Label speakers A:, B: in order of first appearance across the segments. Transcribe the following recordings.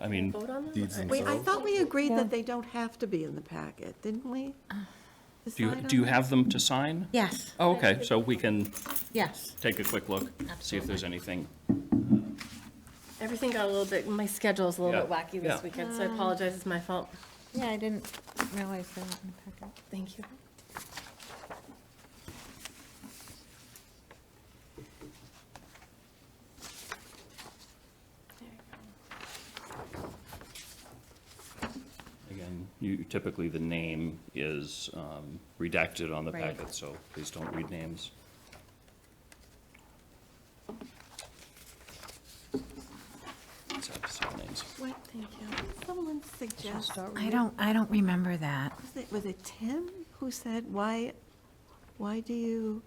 A: I mean,
B: Vote on
C: Deeds
B: that?
C: Wait,
D: Wait, I
C: So-
D: thought we agreed
E: Yeah.
D: that they don't have to be in the packet, didn't we?
A: do you,
D: Decide
A: do you
D: on
A: have them to sign?
E: Yes,
A: Oh, okay, so we can
E: yes.
A: take a quick look, see if there's anything.
B: Everything got a little bit, my schedule's a little bit
A: Yeah,
B: wacky
A: yeah.
B: this weekend, so I apologize, it's my fault.
E: Yeah, I didn't realize that in the packet.
B: Thank you. There you go.
A: Again, you, typically the name is um, redacted on the
E: Right.
A: packet, so please don't read names. Sorry, sorry, names.
D: What,
B: Thank you.
D: someone suggest,
E: I don't, I don't remember that.
D: was it, was it Tim who said, why, why do you?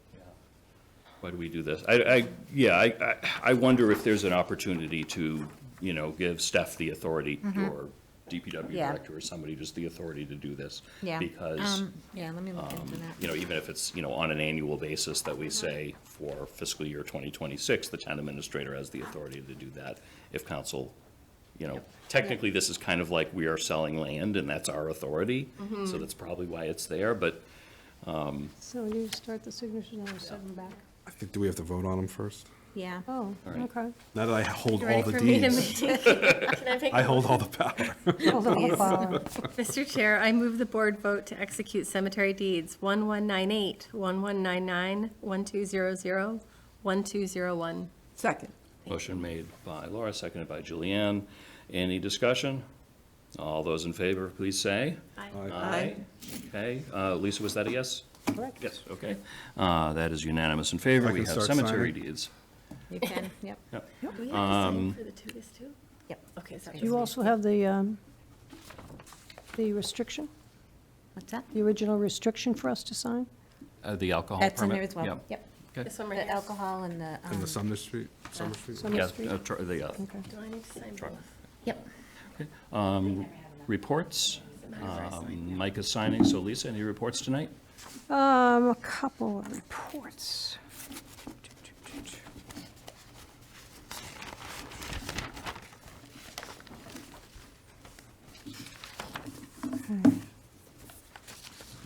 A: Why do we do this? I, I, yeah, I, I- I wonder if there's an opportunity to, you know, give Steph the authority or DPW
E: Mm-hmm. Yeah.
A: director or somebody just the authority to do this.
E: Yeah.
A: Because,
E: Um, Yeah, let me look into that. Uh-huh.
A: you know, even if it's, you know, on an annual basis that we say for fiscal year 2026, the town administrator has the authority to do that if council, you know, technically, this is kind of like we are selling land and that's our authority.
E: Mm-hmm.
A: So that's probably why it's there, but
F: So you start the signatures and I'll send them back.
C: I think, do we have to vote on them first?
E: Yeah.
F: Oh,
A: right.
F: okay.
C: Now that I hold
B: You
C: all
B: ready
C: the
B: for me to
C: deeds,
B: make? Can I make
C: I hold all the power.
F: Hold on, I'll follow.
B: Mr. Chair, I move the board vote to execute cemetery deeds 1198, 1199, 1200, 1201.
D: Second.
A: Motion made by Laura, seconded by Julianne. Any discussion? All those in favor, please say.
D: Aye.
A: Okay, uh, Lisa, was that a yes?
F: Correct.
A: Yes, okay. Uh, That is unanimous in favor.
C: I
A: We
C: can
A: have
C: start
A: cemetery
C: signing.
A: deeds.
E: You can, yep,
B: Do we have to
C: Um,
B: sign for the two, this too?
E: yep.
B: Okay, sorry.
F: Do you also have the, um, the restriction,
E: What's that?
F: the original restriction for us to sign?
A: Uh, The alcohol permit?
E: That's in there as well,
A: Yeah.
E: yep.
B: This one right
E: The
B: here.
E: alcohol and the,
C: In the
E: um,
C: Sumner Street, Sumner Street?
F: Sumner
A: Yeah,
F: Street?
A: uh, tr- the, uh,
F: Okay.
B: Do I need to sign both?
E: yep.
A: um, Reports. Um, Mike is signing, so Lisa, any reports tonight?
F: Um, a couple of reports.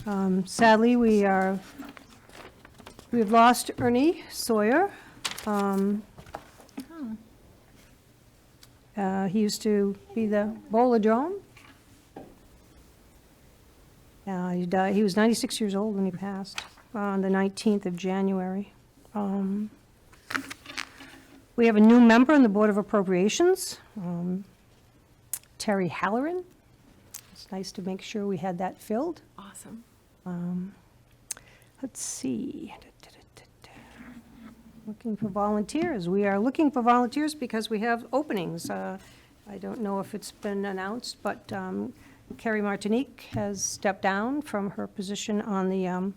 F: Um, Sadly, we are, we've lost Ernie Sawyer. Um, uh, He used to be the bowler drone. Uh, he died, he was 96 years old when he passed, on the 19th of January. Um, We have a new member on the Board of Appropriations, um, Terry Halloran. It's nice to make sure we had that filled.
B: Awesome.
F: Let's see. Looking for volunteers. We are looking for volunteers because we have openings. Uh, I don't know if it's been announced, but um, Carrie Martinique has stepped down from her position on the um,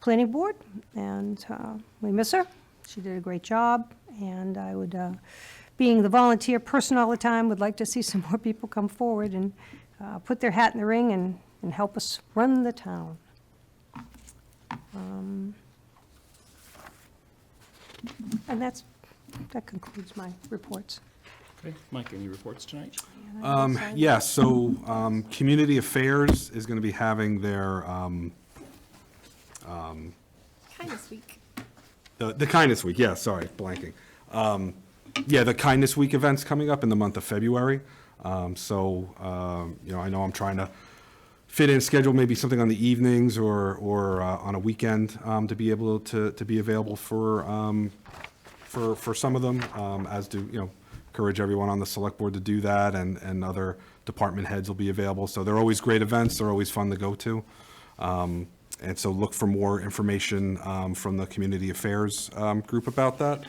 F: planning board, and uh, we miss her. She did a great job, and I would, uh, being the volunteer person all the time, would like to see some more people come forward and uh, put their hat in the ring and and help us run the town. And that's, that concludes my reports.
A: Okay, Mike, any reports tonight?
C: Um, yeah, so, um, Community Affairs is gonna be having their, um,
B: Kindness week.
C: The, the Kindness Week, yeah, sorry, blanking. Um, yeah, the Kindness Week event's coming up in the month of February. Um, so, um, you know, I know I'm trying to fit in schedule maybe something on the evenings or, or uh, on a weekend um, to be able to, to be available for, um, for, for some of them, um, as do, you know, encourage everyone on the select board to do that and, and other department heads will be available. So they're always great events. They're always fun to go to. Um, and so look for more information, um, from the community affairs, um, group about that.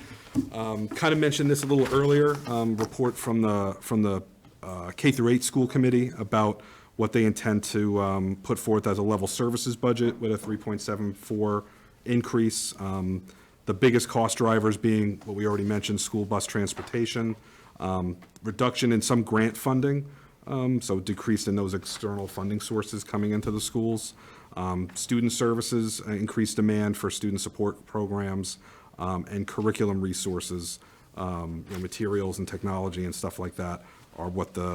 C: Um, kind of mentioned this a little earlier, um, report from the, from the, uh, K through eight school committee about what they intend to, um, put forth as a level services budget with a three point seven four increase. Um, The biggest cost drivers being what we already mentioned, school bus transportation, um, reduction in some grant funding, um, so decrease in those external funding sources coming into the schools. Um, Student services, uh, increased demand for student support programs um, and curriculum resources, um, you know, materials and technology and stuff like that are what the